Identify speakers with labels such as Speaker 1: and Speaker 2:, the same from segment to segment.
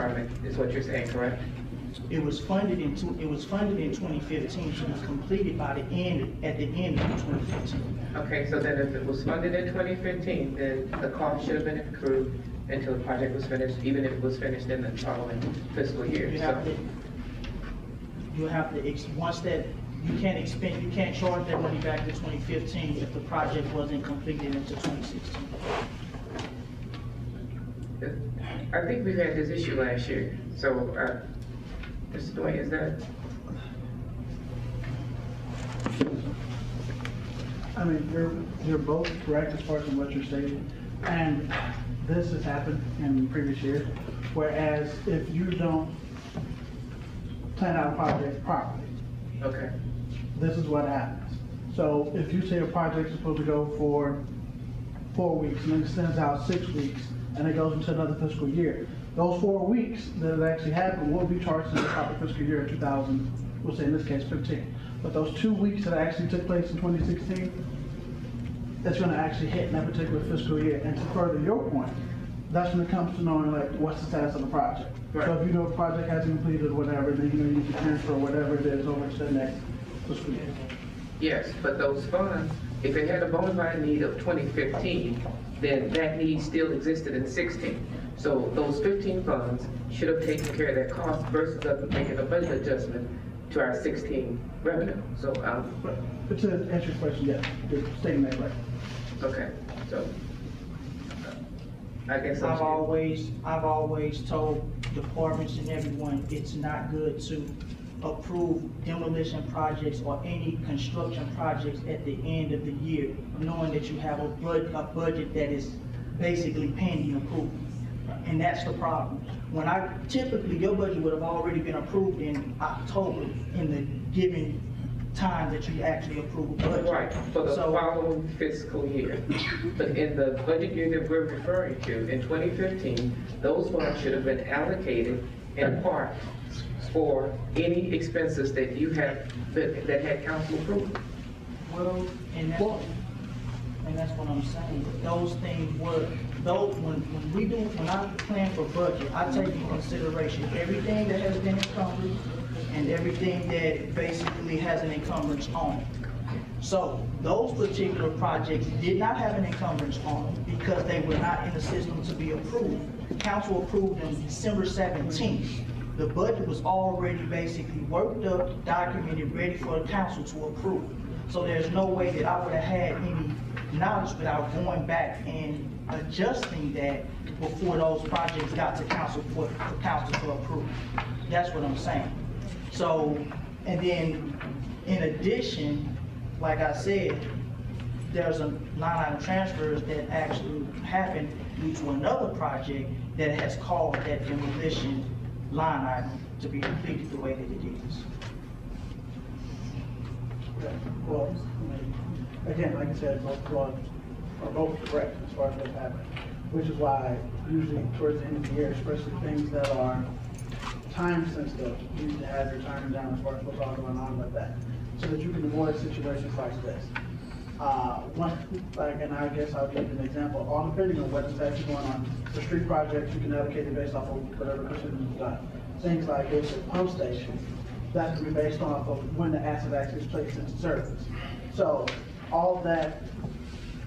Speaker 1: coming, is what you're saying, correct?
Speaker 2: It was funded in, two- it was funded in 2015, so it was completed by the end, at the end of 2015.
Speaker 1: Okay, so then if it was funded in 2015, then the cost should have been accrued until the project was finished, even if it was finished in the following fiscal year.
Speaker 2: You have
Speaker 1: So,
Speaker 2: to, you have to, ex- once that, you can't expend, you can't charge that money back to 2015 if the project wasn't completed until 2016.
Speaker 1: I think we had this issue last year, so, uh, Mr. Dwayne, is that,
Speaker 3: I mean, you're, you're both correct as far as what you're stating, and this has happened in previous years. Whereas if you don't plan out a project properly,
Speaker 1: okay,
Speaker 3: this is what happens. So if you say a project's supposed to go for four weeks and it extends out six weeks and it goes into another fiscal year, those four weeks that it actually happened will be charged to the proper fiscal year of 2000, we'll say in this case 15. But those two weeks that actually took place in 2016, that's going to actually hit in that particular fiscal year. And to further your point, that's when it comes to knowing like what's the status of the project. So
Speaker 1: Right.
Speaker 3: if you know a project hasn't completed or whatever, then you know you can transfer whatever it is over to the next fiscal year.
Speaker 1: yes, but those funds, if it had a bona fide need of 2015, then that need still existed in 16. So those 15 funds should have taken care of that cost versus us making a budget adjustment to our 16 revenue. So, um,
Speaker 3: But but to answer your question, yes, you're stating that right.
Speaker 1: Okay, so, I guess
Speaker 2: I've
Speaker 1: I'm,
Speaker 2: always, I've always told departments and everyone, it's not good to approve demolition projects or any construction projects at the end of the year, knowing that you have a bud, a budget that is basically pending approval. And that's the problem. When I, typically, your budget would have already been approved in October, in the given time that you actually approve a budget.
Speaker 1: right, for the
Speaker 2: So-
Speaker 1: following fiscal year. But in the budget year that we're referring to, in 2015, those funds should have been allocated in part for any expenses that you have, that that had council approval.
Speaker 2: Well, and that's,
Speaker 3: Well-
Speaker 2: and that's what I'm saying, those things were, those, when, when we do, when I plan for budget, I take into consideration everything that has been encumbered and everything that basically has an encumbrance on it. So those particular projects did not have an encumbrance on them because they were not in the system to be approved. Council approved them December seventeenth. The budget was already basically worked up, documented, ready for the council to approve. So there's no way that I would have had any knowledge without going back and adjusting that before those projects got to council for, for council to approve. That's what I'm saying. So, and then, in addition, like I said, there's a line item transfers that actually happened due to another project that has caused that demolition line item to be completed the way that it is.
Speaker 3: Well, I mean, again, like I said, both laws are both correct as far as what's happened, which is why usually towards the end of the year, especially things that are time sensitive, you need to have your timing down as far as what's all going on with that, so that you can avoid situations like this. Uh, one, like, and I guess I'll give you an example, all depending on what's actually going on, the street projects, you can allocate it based off of whatever percentage you've done. Things like this, a pump station, that's gonna be based off of when the asset actually is placed into service. So all that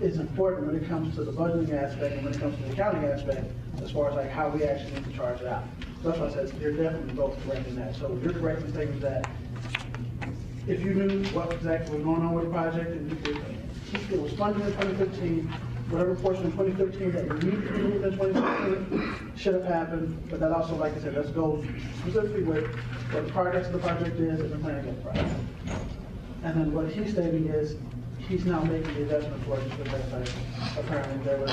Speaker 3: is important when it comes to the budgeting aspect and when it comes to the accounting aspect, as far as like how we actually need to charge it out. So That's why I said, you're definitely both correct in that. So you're correct in stating that if you knew what exactly was going on with the project and you did, it was funded in 2015, whatever portion of 2015 that you needed to be moved in 2015 should have happened, but that also, like I said, let's go specifically with what the progress of the project is and the plan of the project. And then what he's stating is, he's now making the adjustment for it because that's like, apparently there was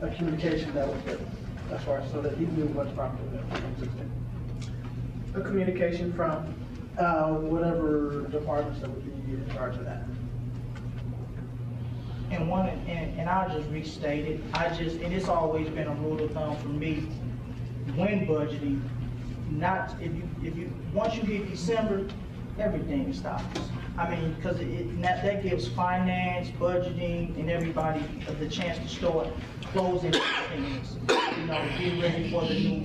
Speaker 3: a communication that was given, as far as, so that he knew what's properly there in 2016
Speaker 4: A communication from,
Speaker 3: uh, whatever departments that would be in charge of that.
Speaker 2: And one, and, and I'll just restate it, I just, and it's always been a rule of thumb for me, when budgeting, not, if you, if you, once you hit December, everything stops. I mean, because it, and that, that gives finance, budgeting, and everybody the chance to start closing things, you know, get ready for the new